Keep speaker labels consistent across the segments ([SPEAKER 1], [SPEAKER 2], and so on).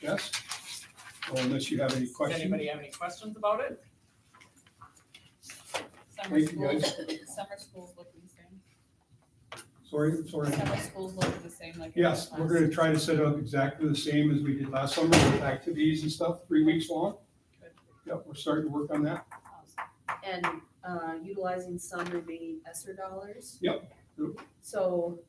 [SPEAKER 1] Yes? Well, Unless you have any
[SPEAKER 2] Does
[SPEAKER 1] questions?
[SPEAKER 2] anybody have any questions about it?
[SPEAKER 3] Summer
[SPEAKER 1] Thank you,
[SPEAKER 3] schools, summer schools look the same.
[SPEAKER 1] Sorry, sorry.
[SPEAKER 3] Summer schools look the same like.
[SPEAKER 1] Yes, we're gonna try to set up exactly the same as we did last summer with activities and stuff, three weeks long. Yep, we're starting to work on that.
[SPEAKER 3] Um,
[SPEAKER 4] and uh, utilizing some remaining ESSER dollars.
[SPEAKER 1] Yep, yep.
[SPEAKER 4] So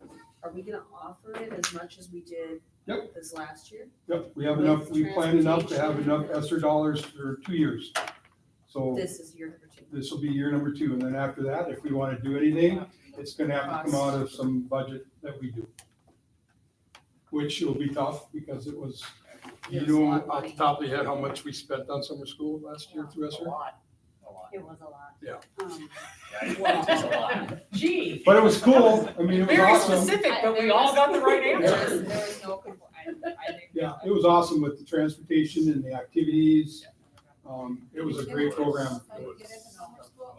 [SPEAKER 4] are we gonna offer it as much as we did
[SPEAKER 1] Yep.
[SPEAKER 4] this last year?
[SPEAKER 1] Yep, we have enough, we planned enough to have enough ESSER dollars for two years. So
[SPEAKER 4] This is year number two.
[SPEAKER 1] this will be year number two, and then after that, if we wanna do anything, it's gonna have to come out of some budget that we do. Which will be tough, because it was, you
[SPEAKER 4] It's a
[SPEAKER 1] know,
[SPEAKER 4] lot of
[SPEAKER 1] off the
[SPEAKER 4] money.
[SPEAKER 1] top of your head, how much we spent on summer school last year through
[SPEAKER 2] A
[SPEAKER 1] ESSER?
[SPEAKER 2] lot, a lot.
[SPEAKER 4] It was a lot.
[SPEAKER 1] Yeah.
[SPEAKER 4] Um,
[SPEAKER 2] Yeah, it's a lot. Gee.
[SPEAKER 1] But it was cool, I mean, it was
[SPEAKER 2] Very
[SPEAKER 1] awesome.
[SPEAKER 2] specific, but we all got the right
[SPEAKER 4] There
[SPEAKER 1] Yeah.
[SPEAKER 2] answer.
[SPEAKER 4] was-
[SPEAKER 3] There was no, compl- I, I think.
[SPEAKER 1] Yeah, it was awesome with the transportation and the activities. Um, it was a great program.
[SPEAKER 3] How you get into summer school?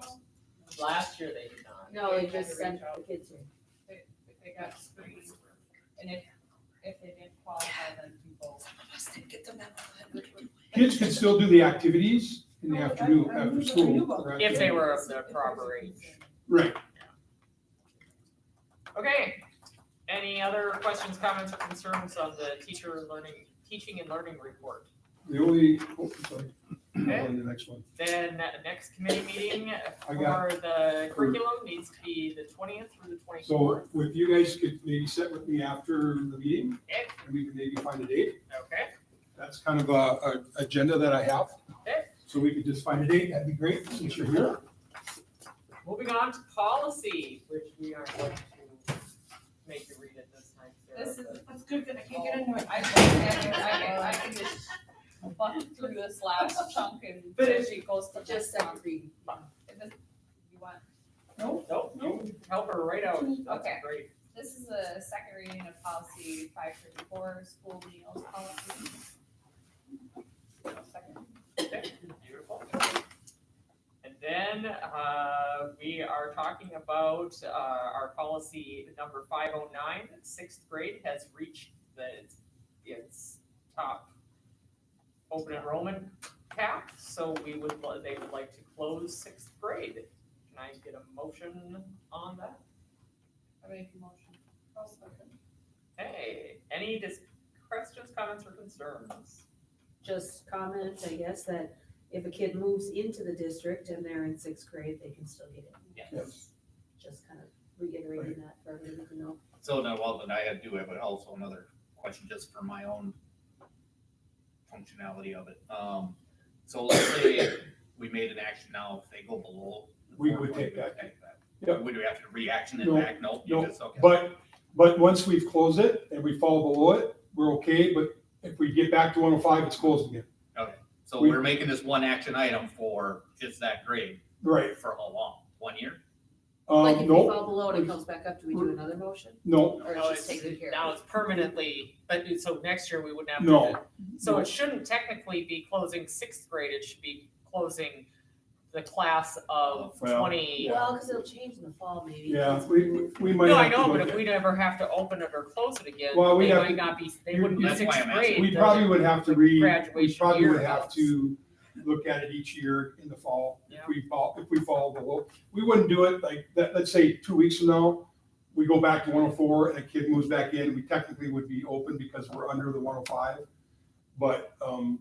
[SPEAKER 3] though?
[SPEAKER 2] Last year they did not.
[SPEAKER 4] No, they just sent the kids here.
[SPEAKER 3] They, they got screened, and if, if they didn't qualify, then people.
[SPEAKER 1] Kids could still do the activities in the
[SPEAKER 2] Oh,
[SPEAKER 1] afternoon, after school. correct?
[SPEAKER 2] If they were of the proper age.
[SPEAKER 1] Right.
[SPEAKER 2] Okay, any other questions, comments, or concerns on the teacher learning, teaching and learning report?
[SPEAKER 1] The only, oh, sorry,
[SPEAKER 2] Okay.
[SPEAKER 1] on the next one.
[SPEAKER 2] Then that next committee meeting
[SPEAKER 1] I
[SPEAKER 2] for
[SPEAKER 1] got-
[SPEAKER 2] the curriculum needs to be the twentieth through the
[SPEAKER 1] So
[SPEAKER 2] twenty-fourth.
[SPEAKER 1] if you guys could maybe sit with me after the meeting
[SPEAKER 2] Okay.
[SPEAKER 1] and we can maybe find a date.
[SPEAKER 2] Okay,
[SPEAKER 1] That's kind of a, a agenda that I have.
[SPEAKER 2] Okay.
[SPEAKER 1] So we could just find a date. That'd be great since you're here.
[SPEAKER 2] moving on to policy, which we are going to make you read it this time, Sarah.
[SPEAKER 3] This is,
[SPEAKER 2] but-
[SPEAKER 3] that's good, cause I can't get into it. I, I, I, I can just buck through this last chunk and.
[SPEAKER 2] But if-
[SPEAKER 3] she goes to
[SPEAKER 4] Just
[SPEAKER 3] just,
[SPEAKER 4] second reading.
[SPEAKER 3] you want
[SPEAKER 2] Nope, you help her right out, that's
[SPEAKER 3] Okay.
[SPEAKER 2] great.
[SPEAKER 3] This is a second reading of policy five thirty-four, school meals policy. Second.
[SPEAKER 2] Okay, Beautiful. And then, uh, we are talking about, uh, our policy number five oh nine, sixth grade has reached the, its top open enrollment cap, so we would, li- they would like to close sixth grade. Can I get a motion on that?
[SPEAKER 3] I make a motion.
[SPEAKER 2] Hey, any dis- questions, comments, or concerns?
[SPEAKER 4] Just comment, I guess, that if a kid moves into the district and they're in sixth grade, they can still get it.
[SPEAKER 1] Yes.
[SPEAKER 4] Just kind of reiterating that for everyone to know.
[SPEAKER 5] So now, well, then I had do have also another question just for my own functionality of it. Um, so let's say we made an action now, if they go below. the
[SPEAKER 1] We
[SPEAKER 5] four
[SPEAKER 1] would
[SPEAKER 5] point,
[SPEAKER 1] take
[SPEAKER 5] we would
[SPEAKER 1] that. Yep.
[SPEAKER 5] Would we have to reaction it
[SPEAKER 1] No,
[SPEAKER 5] back? No, you
[SPEAKER 1] no,
[SPEAKER 5] just, okay.
[SPEAKER 1] But, but once we've closed it and we fall below it, we're okay, but if we get back to one oh five, it's closed again.
[SPEAKER 5] So
[SPEAKER 1] we-
[SPEAKER 5] we're making this one action item for just that grade
[SPEAKER 1] Right.
[SPEAKER 5] for how long? One year?
[SPEAKER 4] Like if
[SPEAKER 1] Um,
[SPEAKER 4] we
[SPEAKER 1] no,
[SPEAKER 4] fall below and it comes back up, do we do another motion?
[SPEAKER 1] no,
[SPEAKER 4] Or it's
[SPEAKER 2] No,
[SPEAKER 4] just taken care of?
[SPEAKER 2] Now it's permanently, but it- so next year we wouldn't have to.
[SPEAKER 1] No.
[SPEAKER 2] do- So it shouldn't technically be closing sixth grade, it should be closing the class of
[SPEAKER 1] Oh, Well,
[SPEAKER 2] twenty.
[SPEAKER 4] Well, because it'll change in the fall, maybe.
[SPEAKER 1] yeah, we, we- we might
[SPEAKER 2] No, I
[SPEAKER 1] have to
[SPEAKER 2] know, but
[SPEAKER 1] look
[SPEAKER 2] if we never have to open it or close it again,
[SPEAKER 1] Well, we'd
[SPEAKER 2] they
[SPEAKER 1] have
[SPEAKER 2] might
[SPEAKER 1] to-
[SPEAKER 2] not be, they
[SPEAKER 1] you-
[SPEAKER 2] wouldn't be
[SPEAKER 5] That's why
[SPEAKER 2] sixth
[SPEAKER 5] I'm
[SPEAKER 1] at-
[SPEAKER 2] grade.
[SPEAKER 5] asking.
[SPEAKER 1] We
[SPEAKER 2] the-
[SPEAKER 1] probably would have to re, we
[SPEAKER 2] graduation
[SPEAKER 1] probably
[SPEAKER 2] year
[SPEAKER 1] would have
[SPEAKER 2] amounts.
[SPEAKER 1] to look at it each year in the fall.
[SPEAKER 2] Yeah.
[SPEAKER 1] If we fall, if we fall below, we wouldn't do it like, that, let's say two weeks from now, we go back to one oh four and a kid moves back in, we technically would be open because we're under the one oh five. But, um,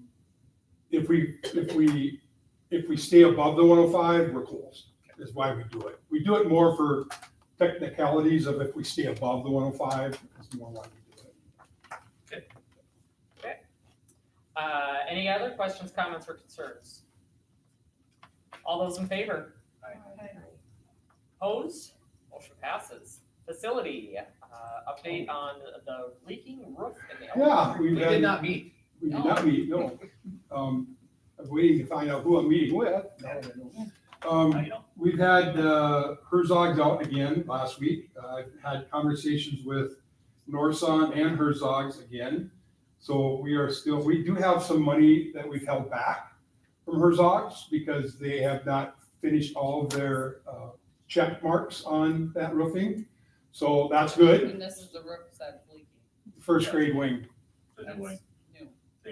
[SPEAKER 1] if we, if we, if we stay above the one oh five, we're closed, is why we do it. We do it more for technicalities of if we stay above the one oh five, is more why we do it.
[SPEAKER 2] Uh, any other questions, comments, or concerns? All those in favor? Opposed? Motion passes. Facility, uh, update on the leaking roof in the.
[SPEAKER 1] Oh. Yeah,
[SPEAKER 2] elementary.
[SPEAKER 1] we've
[SPEAKER 5] We did
[SPEAKER 1] had.
[SPEAKER 5] not meet.
[SPEAKER 1] We did not meet, no. Um, I'm waiting to find out who I'm meeting with. No, I don't.
[SPEAKER 5] I
[SPEAKER 1] Um,
[SPEAKER 5] know.
[SPEAKER 1] we've had, uh, Herzog's out again last week. Uh, I've had conversations with Norson and Herzog's again. So we are still, we do have some money that we've held back from Herzog's because they have not finished all of their, uh, check marks on that roofing. So that's good.
[SPEAKER 3] And this is the roof that's leaking.
[SPEAKER 1] First grade wing.
[SPEAKER 5] So then we-